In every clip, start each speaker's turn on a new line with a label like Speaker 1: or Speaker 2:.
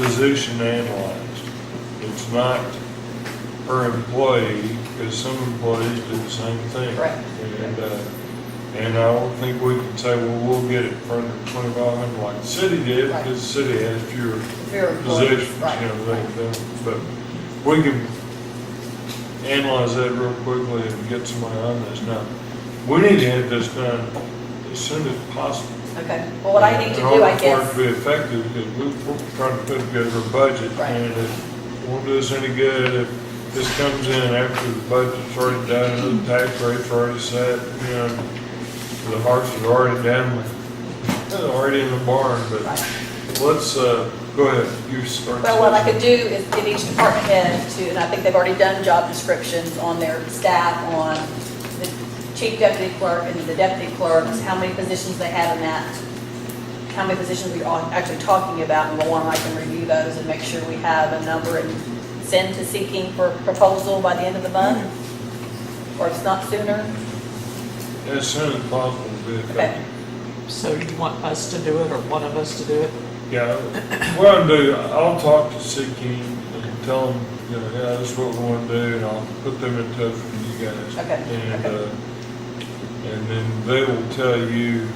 Speaker 1: position analyzed. It's not per employee, because some employees do the same thing.
Speaker 2: Correct.
Speaker 1: And, uh, and I don't think we can say, well, we'll get it for under twenty-five hundred like the city did,
Speaker 2: Right.
Speaker 1: because the city has fewer
Speaker 2: Very important.
Speaker 1: positions, you
Speaker 2: Right.
Speaker 1: know, like that. But we can analyze that real quickly and get somebody on this now. We need to have this done as soon as possible.
Speaker 2: Okay, well, what I need to
Speaker 1: In order
Speaker 2: do, I
Speaker 1: for it to
Speaker 2: guess,
Speaker 1: be effective, because we- we're trying to put together a budget,
Speaker 2: Right.
Speaker 1: and it won't do us any good if this comes in after the budget's already done, and the tax rate's already set, you know, the horse is already down, already in the barn, but
Speaker 2: right.
Speaker 1: let's, uh, go ahead, you start.
Speaker 2: Well, what I could do is get each department head to, and I think they've already done job descriptions on their staff, on the chief deputy clerk and the deputy clerks, how many positions they have in that, how many positions we are actually talking about, and Lauren, I can review those and make sure we have a number and send to seeking for proposal by the end of the month, or if it's not sooner.
Speaker 1: As soon as possible, would be effective.
Speaker 3: So you want us to do it or one of us to do it?
Speaker 1: Yeah, what I'll do, I'll talk to Seeking and tell them, you know, yeah, this is what we want to do, and I'll put them in touch with you guys.
Speaker 2: Okay,
Speaker 1: And,
Speaker 2: okay.
Speaker 1: uh, and then they will tell you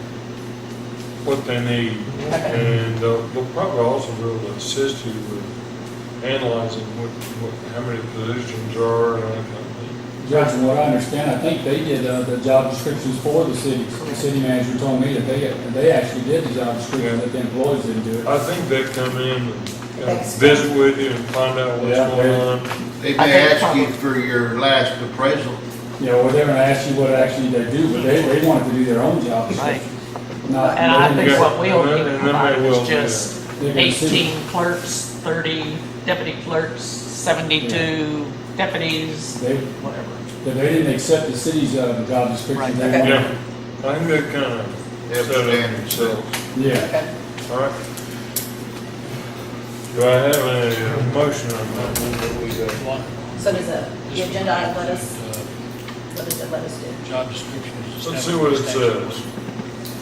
Speaker 1: what they need.
Speaker 2: Okay.
Speaker 1: And they'll, they'll probably also be able to assist you with analyzing what, what, how many positions are and all that kind of thing.
Speaker 4: Judge, from what I understand, I think they did uh, the job descriptions for the cities. The city manager told me that they, they actually did the job descriptions, that the employees didn't do it.
Speaker 1: I think they come in and you know,
Speaker 2: Thanks.
Speaker 1: visit with you and find out what's
Speaker 4: Yeah, they-
Speaker 1: going on.
Speaker 5: They
Speaker 3: I
Speaker 5: may
Speaker 3: think
Speaker 5: ask you
Speaker 3: probably-
Speaker 5: for your last appraisal.
Speaker 4: You know, well, they're gonna ask you what actually they do, but they, they wanted to do their own job
Speaker 3: Right.
Speaker 4: description. Not-
Speaker 3: And I
Speaker 4: they
Speaker 3: think
Speaker 4: didn't-
Speaker 3: what we will
Speaker 1: Yeah,
Speaker 3: need to
Speaker 1: and Uh, then I
Speaker 3: provide
Speaker 1: will,
Speaker 3: is
Speaker 1: yeah.
Speaker 3: just
Speaker 4: They're gonna see-
Speaker 3: eighteen clerks, thirty deputy clerks, seventy-two deputies,
Speaker 4: They,
Speaker 3: whatever.
Speaker 4: they didn't accept the city's uh, job description.
Speaker 3: Right,
Speaker 4: They
Speaker 2: okay.
Speaker 4: wanted-
Speaker 1: Yeah, I think they kind of
Speaker 5: Have
Speaker 1: set up
Speaker 5: standards.
Speaker 1: themselves.
Speaker 4: Yeah.
Speaker 2: Okay.
Speaker 1: All right. Do I have a uh, motion on that?
Speaker 2: So does the, the agenda item let us, what does it let us do?
Speaker 6: Job descriptions.
Speaker 1: Let's see what it says.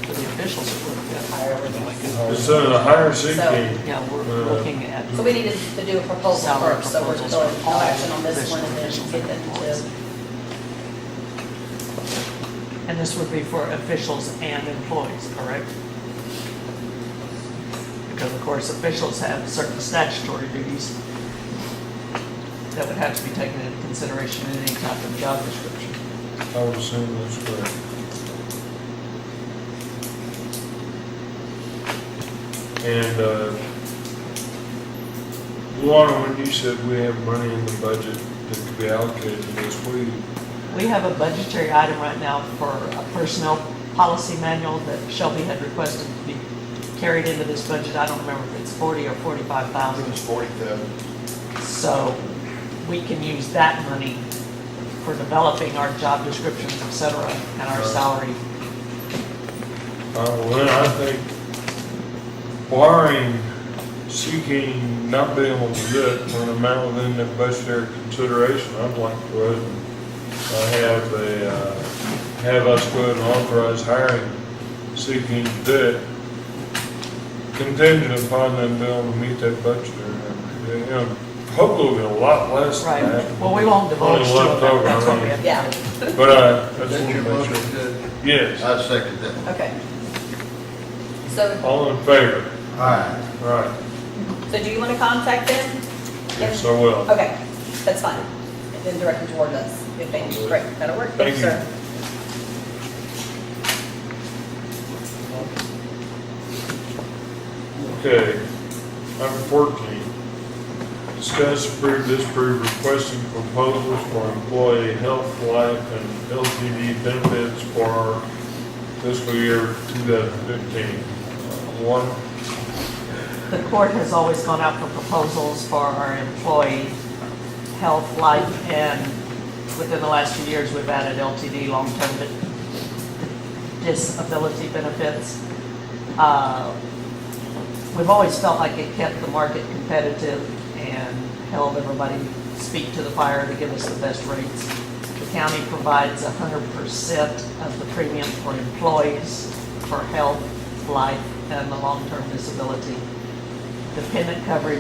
Speaker 3: The officials are looking
Speaker 2: Hire or
Speaker 6: Like
Speaker 2: not?
Speaker 6: it.
Speaker 4: Uh,
Speaker 1: It's under the higher seeking.
Speaker 3: at, yeah, we're
Speaker 1: Uh,
Speaker 3: looking at.
Speaker 2: So we needed to do a proposal
Speaker 3: Salary
Speaker 2: first, so we're
Speaker 3: proposals
Speaker 2: going
Speaker 3: for
Speaker 2: all
Speaker 3: all
Speaker 2: action on this one and then
Speaker 3: officials
Speaker 2: get
Speaker 3: and employees.
Speaker 2: that
Speaker 3: And this would be for officials and employees, correct? Because of course, officials have certain statutory duties that would have to be taken into consideration in any type of job description.
Speaker 1: I would assume that's correct. And, uh, Luana, when you said we have money in the budget that could be allocated to this, what do you,
Speaker 3: We have a budgetary item right now for a personnel policy manual that Shelby had requested to be carried into this budget. I don't remember if it's 40 or 45,000.
Speaker 5: was forty thousand.
Speaker 3: So we can use that money for developing our job descriptions, et cetera, and our salary.
Speaker 1: Uh, well, then I think barring seeking not being able to do it for an amount within the budgetary consideration, I'd like to go ahead and uh, have a, uh, have us go ahead and authorize hiring seeking to do it contingent upon them being able to meet that budget. or, You know, hopefully it'll be a lot less
Speaker 3: Right,
Speaker 1: than that.
Speaker 3: well, we won't divulge
Speaker 1: Only
Speaker 3: to
Speaker 1: left
Speaker 3: it,
Speaker 1: over,
Speaker 3: that's what we
Speaker 1: I
Speaker 3: have.
Speaker 2: did. Yeah,
Speaker 1: mean. But I, I just
Speaker 5: That's
Speaker 1: want to
Speaker 5: your
Speaker 1: make
Speaker 5: motion,
Speaker 1: sure.
Speaker 5: Judge?
Speaker 1: Yes,
Speaker 5: I second that.
Speaker 2: okay. So,
Speaker 1: all in favor?
Speaker 5: All right.
Speaker 1: All right,
Speaker 2: so do you want to contact them?
Speaker 1: yes, I will.
Speaker 2: Okay, that's fine. And then direct them toward us if they, great, that'll work.
Speaker 1: Thank you.
Speaker 2: Sure.
Speaker 1: Okay, number fourteen. Discuss approve, disapprove requesting proposals for employee health, life, and LTD benefits for fiscal year two thousand fifteen. One,
Speaker 3: The court has always gone out for proposals for our employee health, life, and within the last few years, we've added LTD, long-term di- disability benefits. Uh, We've always felt like it kept the market competitive and held everybody feet to the fire to give us the best rates. The county provides hundred percent of the premium for employees for health, life, and the long-term disability dependent coverage